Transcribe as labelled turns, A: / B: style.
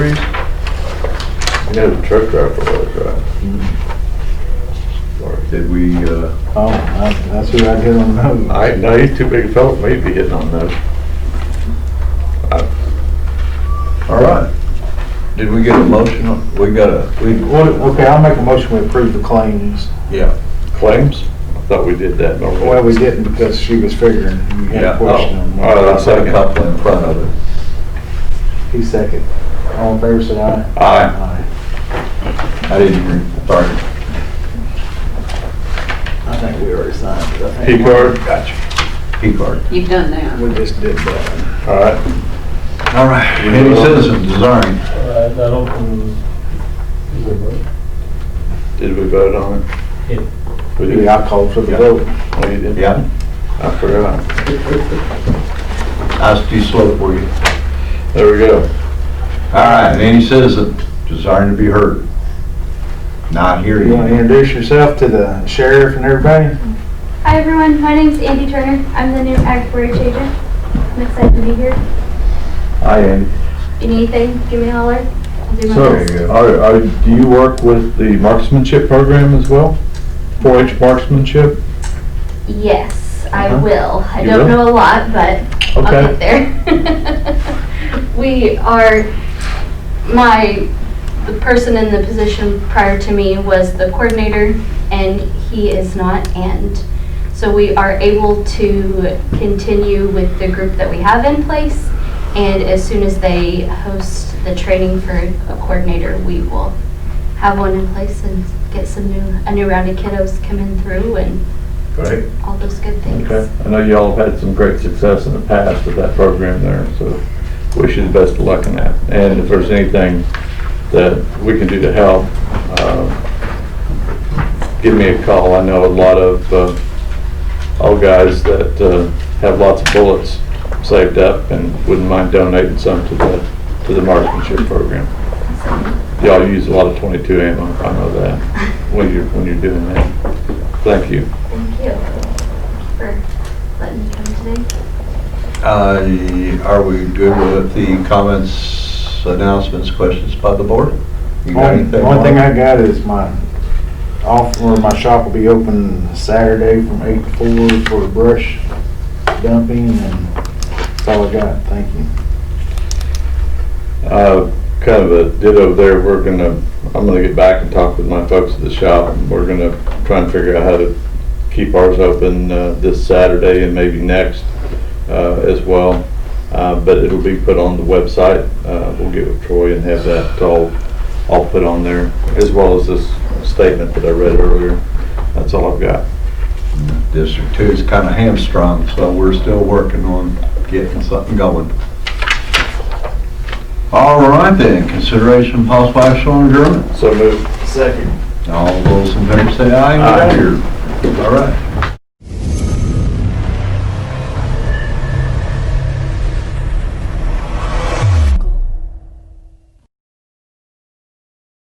A: You know, the truck driver was, uh, right? Sorry.
B: Did we, uh,
C: Oh, that- that's who I get on those.
A: I, no, he's too big a fellow for me to be hitting on those.
B: all right. Did we get a motion? on- We got a, we,
C: What, okay, I'll make a motion we approve the claims.
B: yeah.
A: Claims? I thought we did that normally.
C: Well, we didn't because she was figuring, you had
B: Yeah,
C: a
B: oh,
C: question. on
A: all right.
C: that.
B: I said a couple in front of it.
C: He second. All in favor, say aye.
B: Aye.
C: Aye.
B: I didn't hear, sorry.
C: I think we already signed it. I
A: P
C: think
A: card? Gotcha.
B: P card.
D: You've done that.
C: We just did that.
A: All right,
B: All right. Any citizen desiring,
E: I I don't, um, is it right?
A: did we vote on it?
E: Yeah.
A: We did.
C: Yeah, I called for the vote.
A: Oh, you did?
B: yeah,
A: I forgot.
B: I too slow for you.
A: There we go.
B: All right, any citizen desiring to be heard. Not here
C: You
B: yet.
C: want to introduce yourself to the sheriff and everybody?
F: Hi everyone, my name's Andy Turner. I'm the new Ag Forage agent. I'm excited to be here.
B: Hi, Andy.
F: If you need anything, give me a holler. I'll do my
A: So,
F: best.
A: are, are, do you work with the marksmanship program as well? 4-H marksmanship?
F: Yes, I
A: Uh-huh.
F: will. I
A: You
F: don't
A: will?
F: know a lot, but
A: Okay.
F: I'll get there. we are, my, the person in the position prior to me was the coordinator, and he is not, and so we are able to continue with the group that we have in place, and as soon as they host the training for a coordinator, we will have one in place and get some new, a new round of kiddos coming through and
A: Great.
F: all those good things.
A: Okay, I know y'all have had some great success in the past with that program there, so wish you the best of luck in that. And if there's anything that we can do to help, uh, give me a call. I know a lot of, uh, old guys that, uh, have lots of bullets saved up and wouldn't mind donating some to the, to the marksmanship program. Y'all use a lot of twenty-two ammo, I know that, when you're, when you're doing that. Thank you.
F: Thank you for letting me come today.
B: Uh, Are we good with the comments, announcements, questions by the board? You got
C: One
B: anything?
C: one thing I got is my off, or my shop will be open Saturday from eight to four for brush dumping and that's all I got. Thank you.
A: Uh, Kind of a ditto there, we're gonna, I'm gonna get back and talk with my folks at the shop, and we're gonna try and figure out how to keep ours open uh, this Saturday and maybe next uh, as well, Uh, but it'll be put on the website, Uh, we'll get with Troy and have that all, all put on there, as well as this statement that I read earlier, that's all I've got.
B: District two is kind of hamstrung, so we're still working on getting something going. All right then, consideration possible action on adjournment.
A: So move.
C: Second.
B: All those in favor say aye.
A: Aye.
B: All right.